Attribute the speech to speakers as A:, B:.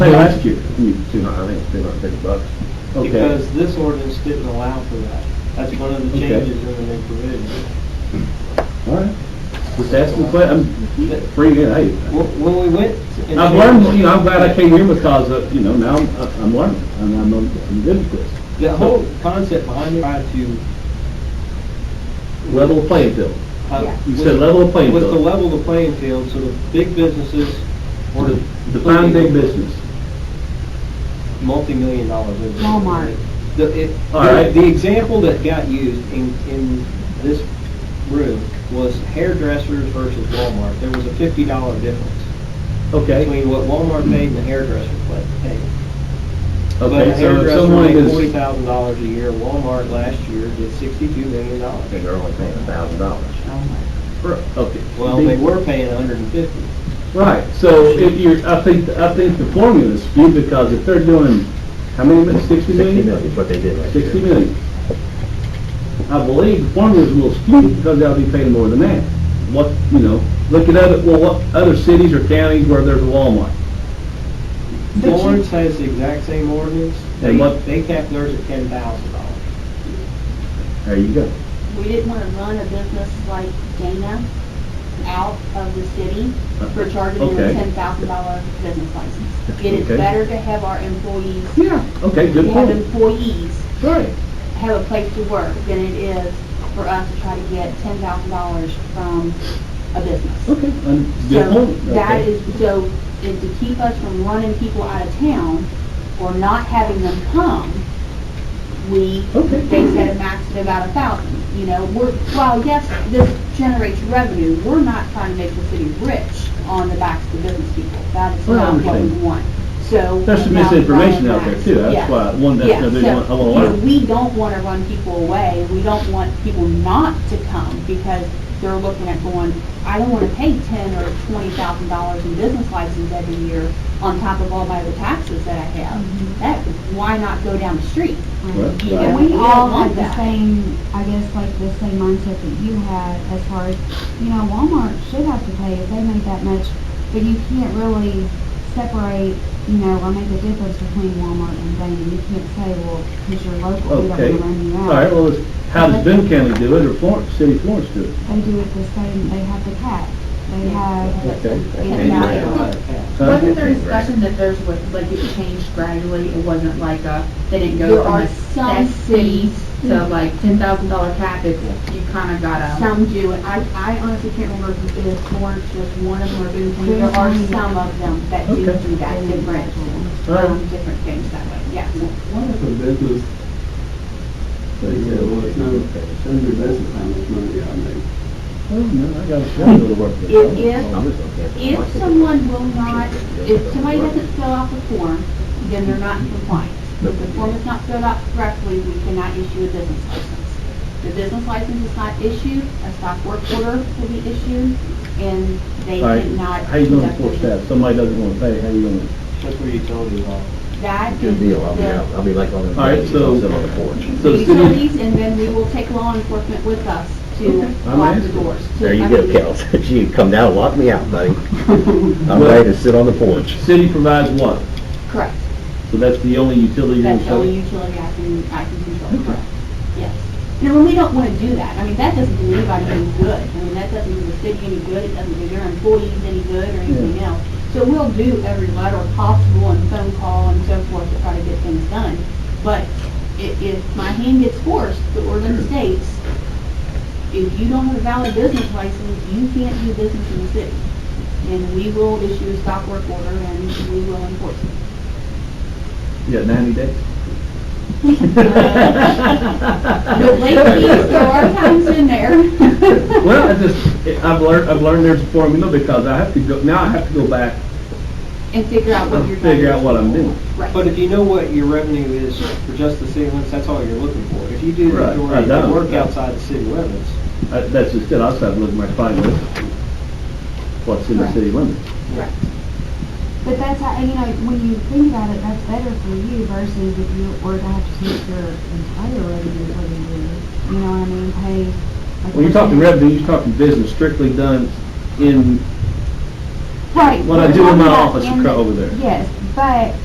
A: They ask you, you, two hundred, I think it's two hundred fifty bucks. Okay,
B: Because this ordinance didn't allow for that. That's one of the
A: Okay.
B: changes in the new provision.
A: all right. Just asking, but I'm um, free, yeah, hey.
B: Wh- When we went. and-
A: I've learned, you know, I'm glad I came here because, of, you know, now I'm, I'm learning, and I'm, I'm good at this.
B: The whole concept behind trying to.
A: Level playing field.
B: uh,
A: You
B: was-
A: said level the playing
B: Was to
A: field.
B: level the playing field so the big businesses or the.
A: Define big business.
B: Multi-million dollar businesses.
C: Walmart.
B: The, it,
A: All right.
B: the example that got used in, in this room was hairdressers versus Walmart. There was a fifty dollar difference
A: Okay,
B: between what Walmart paid and the hairdresser pla- paid. But a
A: okay, so if
B: hairdresser
A: someone
B: made forty
A: is,
B: thousand dollars a year, Walmart last year did sixty-two million dollars.
D: they're only paying a thousand dollars.
A: okay.
B: Well, they were paying a hundred and fifty.
A: Right, so if you're, I think, I think the formula is skewed because if they're doing, how many, minutes? sixty
D: Sixty
A: million?
D: million is what they did last year.
A: 60 million. I believe the formulas will skew because they'll be paying more than that. What, you know, look at other, well, what, other cities or counties where there's a Walmart.
B: Florence has the exact same ordinance. They,
A: And what-
B: they cap theirs at ten thousand dollars.
A: There you go.
C: We didn't want to run a business like Dana out of the city for charging them a
A: Okay.
C: ten thousand dollar business license. It is
A: Okay.
C: better to have our employees,
A: Yeah, okay,
C: to
A: good
C: have
A: point.
C: employees
A: Right.
C: have a place to work than it is for us to try to get ten thousand dollars from a business.
A: Okay, un- good
C: So
A: point.
C: that
A: Okay.
C: is, so is to keep us from running people out of town or not having them come, we,
A: Okay.
C: they set a max of about a thousand. You know, we're, while yes, this generates revenue, we're not trying to make the city rich on the backs of the business people. That is
A: Well, I
C: not what we
A: understand.
C: want. So.
A: There's some
C: now we
A: misinformation
C: run
A: out there
C: max.
A: too. That's
C: Yeah.
A: why, one, that's,
C: Yeah,
A: another
C: so,
A: one oh, I
C: you
A: want to
C: know,
A: learn.
C: we don't want to run people away. We don't want people not to come because they're looking at going, I don't want to pay ten or twenty thousand dollars in business license every year on top of all my other taxes that I have. That, why not go down the street?
A: Right,
C: You
A: right.
C: know,
E: We
C: don't
E: all
C: want
E: had the
C: that.
E: same, I guess, like the same mindset that you had as far as, you know, Walmart should have to pay if they make that much, but you can't really separate, you know, or make a difference between Walmart and Dana. You can't say, well, because you're local, we don't
A: Okay.
E: wanna run you
A: All
E: out.
A: right, well, it's- how does Boone County do it or Florence, City of Florence do it?
E: They do it the same, they have the cap, they have.
A: Okay.
E: it's not-
A: Huh?
F: Wasn't there discussion that there's, what- like, it changed gradually, it wasn't like a, they didn't
C: There
F: go from
C: are
F: a
C: some
F: set fee to like ten thousand dollar cap, it's, you kinda got a,
C: Some do, and I, I honestly can't remember if it is Florence, just one of them or Boone County. There are some of them that do
A: Okay.
C: do that, different,
A: All right.
C: um, different things that way, yeah.
G: What if a business, they said, well, it's not, it's under business, how much money I make?
A: Oh, no, I got a shot to work with.
C: If- if-
A: I'm just gonna cancel my
C: If
A: ticket.
C: someone will not, if somebody doesn't fill out the form, then they're not in compliance. If the form is not filled out correctly, we cannot issue a business license. The business license is not issued, a stop work order will be issued, and they
A: All right,
C: cannot.
A: How you gonna
C: conduct
A: enforce
C: business.
A: that? If Somebody doesn't wanna pay, how you gonna?
B: That's where utilities are.
C: That
D: Good
C: is
D: deal, I'll be
C: the-
D: out, I'll be like on the.
A: All right, so-
D: Sit on the porch.
A: So
C: the
A: the city-
C: utilities, and then we will take law enforcement with us to
A: I'm
C: lock the
A: asking.
C: doors. to-
D: There you
C: I
D: go,
C: mean,
D: Cal, you come down, lock me out, buddy. I'm ready to sit on the porch.
A: City provides water,
C: Correct.
A: so that's the only utility you're
C: That's the only
A: gonna
C: utility I can, I can control, correct, yes. Now, when we don't want to do that, I mean, that doesn't do anybody any good, I mean, that doesn't do the city any good, it doesn't do their employees any good or anything else. So we'll do every letter possible and phone call and so forth to try to get things done, but if, if my hand gets forced, the ordinance states, if you don't have a valid business license, you can't do business in the city. And we will issue a stop work order and we will enforce it.
A: You got ninety days?
C: The late fees, there are times in there.
A: Well, I just, I've learned, I've learned there's a formula because I have to go, now I have to go back
C: And figure out what
A: and
C: you're doing.
A: figure out what I'm doing.
C: Right.
B: But if you know what your revenue is for just the city limits, that's all you're looking for. If you do the
A: Right, I
B: majority of
A: don't.
B: the work outside the city limits,
A: Uh, That's just it, I'll start looking at my client list, what's in the city limits.
C: Correct.
E: But that's how, and you know, when you think about it, that's better for you versus if you were to have to take your entire revenue every year. You know what I mean? Pay. like,
A: When you're talking
E: percentage.
A: revenue, you're talking business strictly done in
E: Right.
A: What I do in my
E: Yeah,
A: office, you
E: and-
A: cut over there.
E: Yes, but